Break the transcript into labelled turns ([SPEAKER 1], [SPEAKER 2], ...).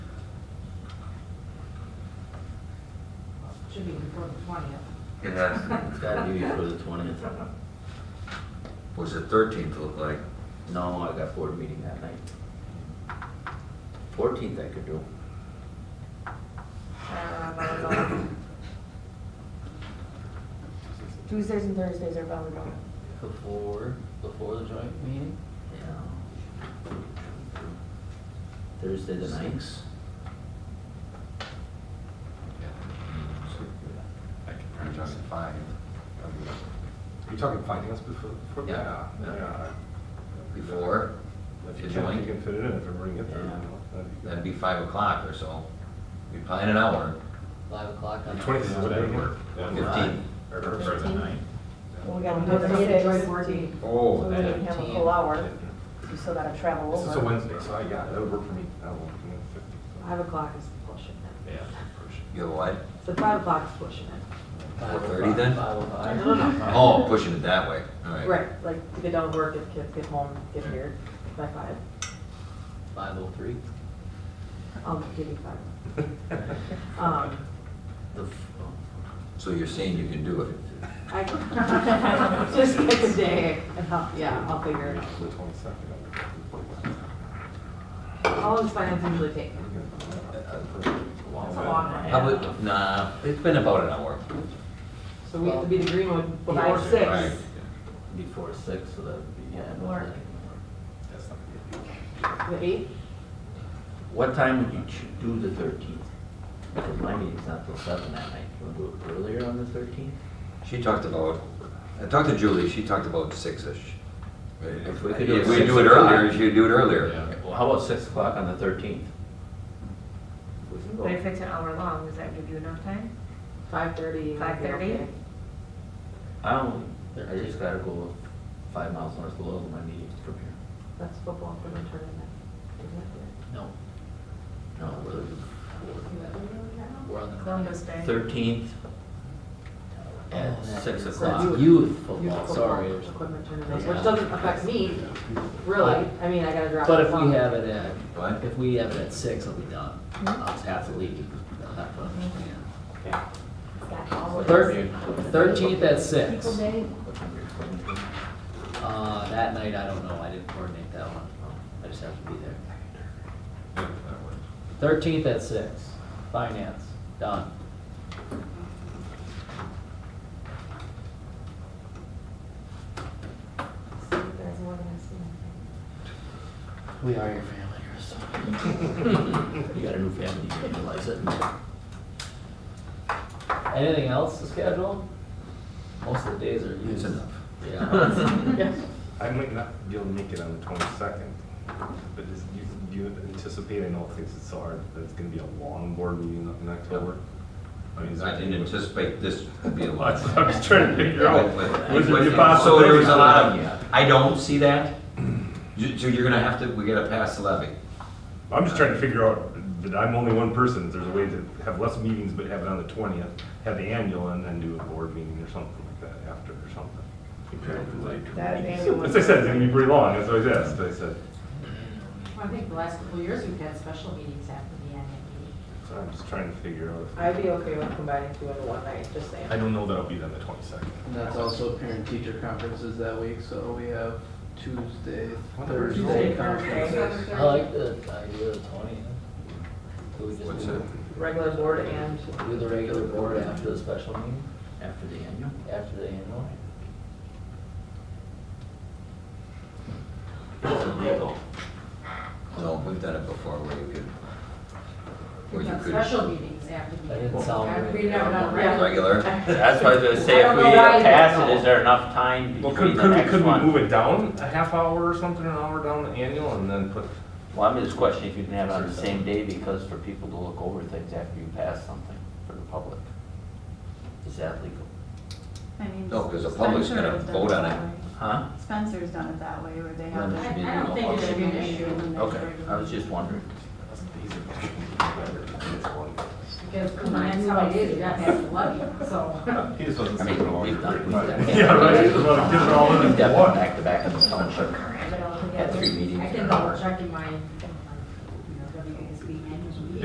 [SPEAKER 1] should be before the twentieth.
[SPEAKER 2] It has to
[SPEAKER 3] It's gotta be before the twentieth.
[SPEAKER 2] be. What's the thirteenth look like?
[SPEAKER 3] No, I got board meeting that night. Fourteenth I could do.
[SPEAKER 4] Uh, Tuesdays and Thursdays are volleyball.
[SPEAKER 3] Before, before the joint meeting? Yeah. Thursday the ninth?
[SPEAKER 5] I can print
[SPEAKER 6] You're
[SPEAKER 5] out.
[SPEAKER 6] talking five. You're talking finance before, before?
[SPEAKER 2] Yeah.
[SPEAKER 6] yeah.
[SPEAKER 2] Before?
[SPEAKER 6] If
[SPEAKER 2] The
[SPEAKER 6] you can,
[SPEAKER 2] joint?
[SPEAKER 6] you can fit it in, if you bring it there.
[SPEAKER 3] Yeah.
[SPEAKER 2] That'd be five o'clock or so. We plan an hour.
[SPEAKER 3] Five o'clock on the.
[SPEAKER 6] Twentieth is what I hear.
[SPEAKER 2] Fifteen.
[SPEAKER 5] Or for the ninth.
[SPEAKER 4] Well, we got
[SPEAKER 1] That's
[SPEAKER 4] another
[SPEAKER 1] the joint
[SPEAKER 4] meeting,
[SPEAKER 1] board meeting.
[SPEAKER 6] Oh,
[SPEAKER 4] so we
[SPEAKER 6] that.
[SPEAKER 4] didn't have a full hour. We still gotta travel
[SPEAKER 6] This is a
[SPEAKER 4] over.
[SPEAKER 6] Wednesday, so I, yeah, that would work for me. That would work for me, fifty.
[SPEAKER 1] Five o'clock is pushing it.
[SPEAKER 5] Yeah.
[SPEAKER 2] You have what?
[SPEAKER 1] So five o'clock is pushing it.
[SPEAKER 3] Five
[SPEAKER 2] 4:30
[SPEAKER 3] o'clock,
[SPEAKER 2] then?
[SPEAKER 3] Five o'clock.
[SPEAKER 1] No, no, no.
[SPEAKER 2] Oh, pushing it that way, all right.
[SPEAKER 1] Right, like to get down to work, get kids, get home, get here by five.
[SPEAKER 3] Five oh three.
[SPEAKER 1] I'll give you five. Um,
[SPEAKER 3] The, f- oh.
[SPEAKER 2] So you're saying you can do it?
[SPEAKER 1] I, just pick a day and I'll, yeah, I'll figure it out.
[SPEAKER 6] The twenty-second.
[SPEAKER 1] How long does finance usually take? It's a long one.
[SPEAKER 2] How about, nah, it's been about an hour.
[SPEAKER 1] So we have to be to Greenwood before
[SPEAKER 4] Five,
[SPEAKER 1] six.
[SPEAKER 2] Right.
[SPEAKER 3] before six, so that would be, yeah.
[SPEAKER 4] That'd
[SPEAKER 3] no,
[SPEAKER 4] work.
[SPEAKER 3] that can work.
[SPEAKER 1] The eighth?
[SPEAKER 3] What time would you ch- do the thirteenth? Because my meeting's not till seven that night. You wanna do it earlier on the thirteenth?
[SPEAKER 2] She talked about, I talked to Julie, she talked about six-ish.
[SPEAKER 3] If we could do it
[SPEAKER 2] If we do it
[SPEAKER 3] 6 o'clock.
[SPEAKER 2] earlier, she'd do it
[SPEAKER 5] Yeah.
[SPEAKER 2] earlier.
[SPEAKER 3] Well, how about six o'clock on the thirteenth?
[SPEAKER 7] But if it's an hour long, does that give you enough time?
[SPEAKER 1] Five thirty.
[SPEAKER 7] 5:30?
[SPEAKER 3] I don't, I just gotta go five miles north of Lowell, my meeting's from here.
[SPEAKER 1] That's football for the tournament. Isn't
[SPEAKER 3] No. No, we're, we're on
[SPEAKER 7] Columbus Day?
[SPEAKER 3] the thirteenth
[SPEAKER 8] Oh,
[SPEAKER 3] at six o'clock.
[SPEAKER 1] youth-
[SPEAKER 3] Youth
[SPEAKER 1] it? Youth
[SPEAKER 3] football,
[SPEAKER 1] football
[SPEAKER 3] sorry.
[SPEAKER 1] Equipment tournament, which
[SPEAKER 3] Yeah.
[SPEAKER 1] doesn't affect me, really. I mean, I gotta drop.
[SPEAKER 8] But if
[SPEAKER 1] the ball.
[SPEAKER 8] we have it at,
[SPEAKER 2] What?
[SPEAKER 8] if we have it at six, I'll be done. I'll just have to leave. I'll have to understand. Thirteenth at six. Uh, that night, I don't know, I didn't coordinate that one. I just have to be there. Thirteenth at six, finance, done.
[SPEAKER 3] We are your family, Chris. You got a new family, you didn't realize it.
[SPEAKER 8] Anything else to schedule? Most of the days are
[SPEAKER 2] It's
[SPEAKER 8] used.
[SPEAKER 2] enough.
[SPEAKER 8] Yeah.
[SPEAKER 6] I might not be able to make it on the twenty-second, but is, you, you anticipate, I know things are so hard, that it's gonna be a long board meeting up in October. I mean, is
[SPEAKER 2] I
[SPEAKER 6] that-
[SPEAKER 2] didn't anticipate this would be a lot.
[SPEAKER 5] Well, I was trying to figure out, was it
[SPEAKER 2] So there was a lot
[SPEAKER 5] possibility?
[SPEAKER 2] of, I don't see that. You- So you're gonna have to, we gotta pass the levy.
[SPEAKER 6] I'm just trying to figure out, that I'm only one person, if there's a way to have less meetings, but have it on the twentieth, have the annual, and then do a board meeting or something like that after, or something.
[SPEAKER 4] That annual
[SPEAKER 6] As I said, it's gonna be pretty long, that's what I asked, I said,
[SPEAKER 1] Well, I think the last couple of years, we've had special meetings after the annual meeting.
[SPEAKER 6] so I'm just trying to figure out. if-
[SPEAKER 1] I'd be okay with combining two into one night, just saying.
[SPEAKER 6] I don't know that I'll be there on the twenty-second.
[SPEAKER 9] And that's also parent teacher conferences that week, so we have Tuesday,
[SPEAKER 4] Tuesday,
[SPEAKER 9] Thursday conferences.
[SPEAKER 8] I like the idea of twentieth. Do we
[SPEAKER 2] What's
[SPEAKER 8] just
[SPEAKER 2] it?
[SPEAKER 8] do,
[SPEAKER 1] Regular board and
[SPEAKER 8] do the regular board after the special meeting,
[SPEAKER 3] After the annual?
[SPEAKER 8] after the annual?
[SPEAKER 3] It's illegal.
[SPEAKER 2] No, we've done it before where you could. where
[SPEAKER 1] we've
[SPEAKER 2] you
[SPEAKER 1] had
[SPEAKER 2] could-
[SPEAKER 1] special meetings after the.
[SPEAKER 8] That didn't sound
[SPEAKER 1] I've
[SPEAKER 8] good.
[SPEAKER 1] been never done
[SPEAKER 2] Regular?
[SPEAKER 3] That's what I was gonna say,
[SPEAKER 1] I
[SPEAKER 3] if
[SPEAKER 1] don't
[SPEAKER 3] we
[SPEAKER 1] know why you
[SPEAKER 3] pass
[SPEAKER 1] don't
[SPEAKER 3] it,
[SPEAKER 1] know.
[SPEAKER 3] is there enough time
[SPEAKER 6] Well,
[SPEAKER 3] between
[SPEAKER 6] could,
[SPEAKER 3] the
[SPEAKER 6] could we,
[SPEAKER 3] next
[SPEAKER 6] could we move
[SPEAKER 3] one?
[SPEAKER 6] it down a half hour or something, an hour down the annual and then put,
[SPEAKER 3] Well, I'm just questioning if you can have it on the same day, because for people to look over things after you pass something for the public. Is that legal?
[SPEAKER 10] I mean,
[SPEAKER 2] No, 'cause the public's
[SPEAKER 10] Spencer
[SPEAKER 2] gonna
[SPEAKER 10] has done
[SPEAKER 2] vote on
[SPEAKER 10] that
[SPEAKER 2] it.
[SPEAKER 10] way.
[SPEAKER 3] Huh?
[SPEAKER 10] Spencer's done it that way, where they
[SPEAKER 3] Then
[SPEAKER 10] have.
[SPEAKER 3] it should
[SPEAKER 10] it
[SPEAKER 3] be
[SPEAKER 1] I don't
[SPEAKER 3] legal.
[SPEAKER 1] think it should be an
[SPEAKER 10] measured
[SPEAKER 1] issue.
[SPEAKER 10] and
[SPEAKER 3] Okay,
[SPEAKER 10] measured.
[SPEAKER 3] I was just wondering.
[SPEAKER 1] Because for mine, how it is, you're not having to levy, so.
[SPEAKER 6] he just wasn't
[SPEAKER 3] I mean,
[SPEAKER 6] thinking along.
[SPEAKER 3] we've done- we've done-
[SPEAKER 6] Yeah, right, just wanna get it all in
[SPEAKER 3] We've
[SPEAKER 6] at
[SPEAKER 3] done
[SPEAKER 6] once.
[SPEAKER 3] back to back in the township.
[SPEAKER 1] But I'll-
[SPEAKER 3] Had three meetings
[SPEAKER 1] I
[SPEAKER 3] in
[SPEAKER 1] can
[SPEAKER 3] an
[SPEAKER 1] double
[SPEAKER 3] hour.
[SPEAKER 1] check in my